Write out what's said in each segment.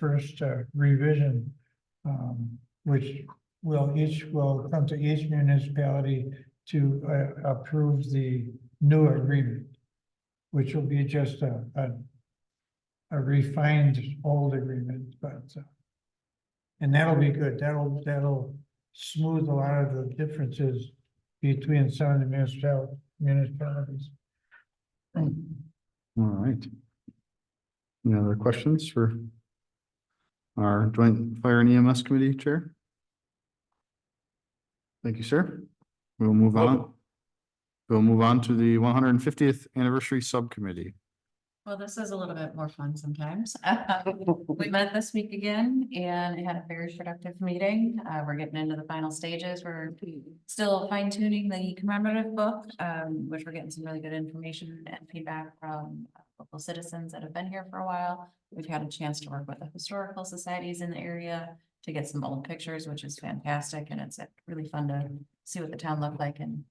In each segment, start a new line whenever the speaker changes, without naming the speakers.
first uh, revision. Um, which will each, will come to each municipality to uh, approve the new agreement. Which will be just a, a. A refined old agreement, but. uh, And that'll be good, that'll, that'll smooth a lot of the differences between some of the municipal, municipalities.
All right. Any other questions for our joint fire and EMS committee chair? Thank you, sir. We'll move on. We'll move on to the one hundred and fiftieth anniversary subcommittee.
Well, this is a little bit more fun sometimes. We met this week again and had a very productive meeting. Uh, we're getting into the final stages. We're still fine tuning the commemorative book, um, which we're getting some really good information and feedback from local citizens that have been here for a while. We've had a chance to work with the historical societies in the area to get some old pictures, which is fantastic, and it's uh, really fun to see what the town looked like in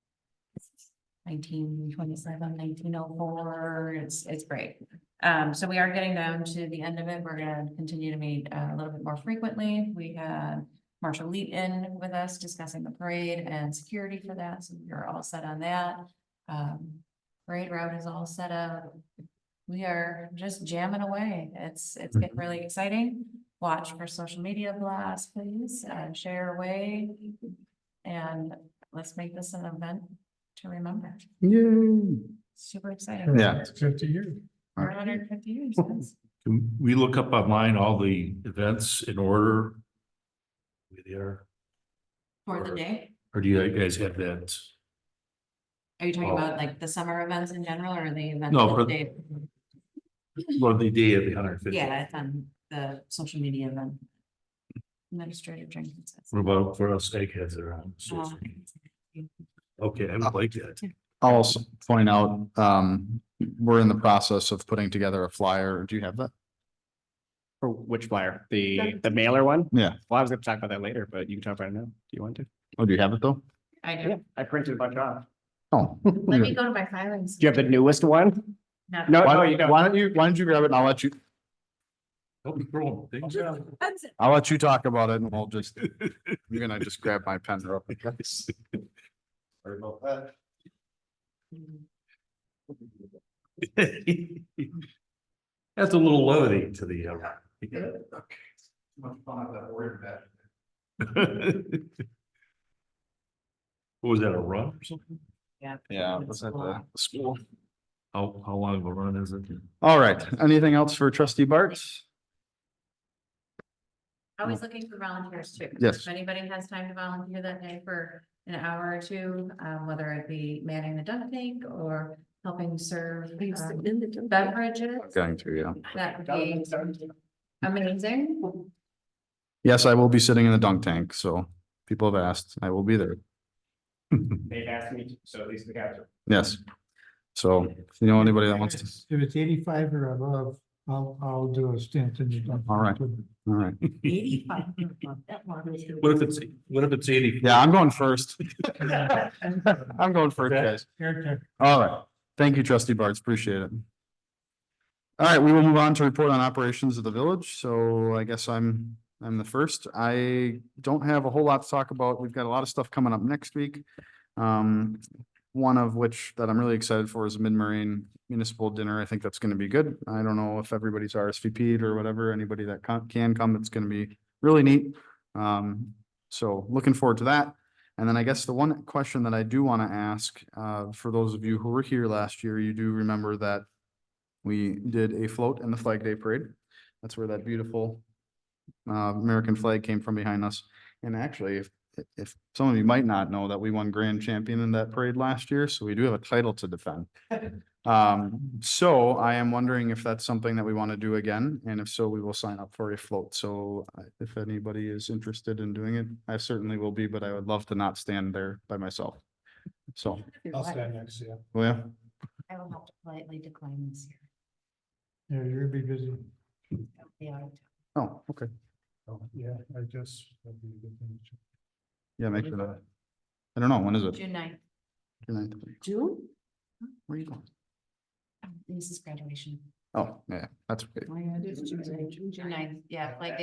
1927, 1904. it's, it's great. Um, so we are getting down to the end of it. We're gonna continue to meet uh, a little bit more frequently. We had Marshall Leet in with us discussing the parade and security for that, so we're all set on that. Um, parade route is all set up. We are just jamming away. It's, it's getting really exciting. Watch for social media blasts, please, uh, share away. And let's make this an event to remember.
Yay.
Super exciting.
Yeah.
It's Fifty years.
Four hundred and fifty years, that's-
Can we look up online all the events in order? Where they are,
for the
Or-
day.
or do you guys have that?
Are you talking
Oh.
about like the summer events in general or the event?
No, for- Well, the day of the hundred fifty.
Yeah, it's on the social media event. Administrative drinking. Oh,
What about for us eggheads around? uh, so
Uh-huh.
it's- Okay, I would like that.
I'll also point out, um, we're in the process of putting together a flyer. Do you have that?
For which flyer? The, the mailer one?
Yeah.
Well, I was gonna talk about that later, but you can talk about it now. Do you want to?
Oh, do you have it though?
I
Yeah,
do.
I printed a bunch off.
Oh.
Let me go to my filings.
Do you have the newest one?
No.
No, no,
Why
you don't.
why don't you, why don't you grab it and I'll let you,
Help me throw things out.
That's it.
I'll let you talk about it and I'll just, you're gonna just grab my pen real quick.
Sorry about that. That's a little levity to the. uh, What Was that a run or something?
Yeah,
It's
was at the
cool.
school.
How, how long of a run is it?
All right, anything else for trustee Bart?
Always looking for volunteers too.
Yes.
If anybody has time to volunteer that day for an hour or two, um, whether it be manning the dump tank or helping serve um, beverages.
Going to, yeah.
That would be amazing.
Yes, I will be sitting in the dunk tank, so people have asked, I will be there.
They've asked me, so at least we have to.
Yes. So, if you know anybody that wants to,
If it's eighty-five or above, I'll, I'll do a stint in the.
All right. all right.
Eighty-five.
What if it's, what if it's eighty?
Yeah, I'm going first. I'm going first, guys.
Character.
All right. Thank you, trustee Bartz. Appreciate it. All right, we will move on to report on operations of the village. So I guess I'm, I'm the first. I don't have a whole lot to talk about. We've got a lot of stuff coming up next week. Um, one of which that I'm really excited for is mid-marine municipal dinner. I think that's going to be good. I don't know if everybody's RSVP'd or whatever, anybody that con- can come, it's going to be really neat. Um, so looking forward to that. And then I guess the one question that I do want to ask, uh, for those of you who were here last year, you do remember that we did a float in the Flag Day Parade. That's where that beautiful uh, American flag came from behind us. And actually, if, if some of you might not know that we won grand champion in that parade last year, so we do have a title to defend. Um, so I am wondering if that's something that we want to do again, and if so, we will sign up for a float. So uh, if anybody is interested in doing it, I certainly will be, but I would love to not stand there by myself. So,
I'll stand next to you.
well, yeah.
I will have to politely decline this year.
Yeah, you'll be busy.
Yeah,
Oh, okay.
Oh, Yeah, I guess. that'd be a good thing to-
Yeah, make sure that. I don't know, when is it?
June ninth.
June ninth.
June?
Where are you going?
This is graduation.
Oh, yeah, that's okay.
June ninth, yeah, like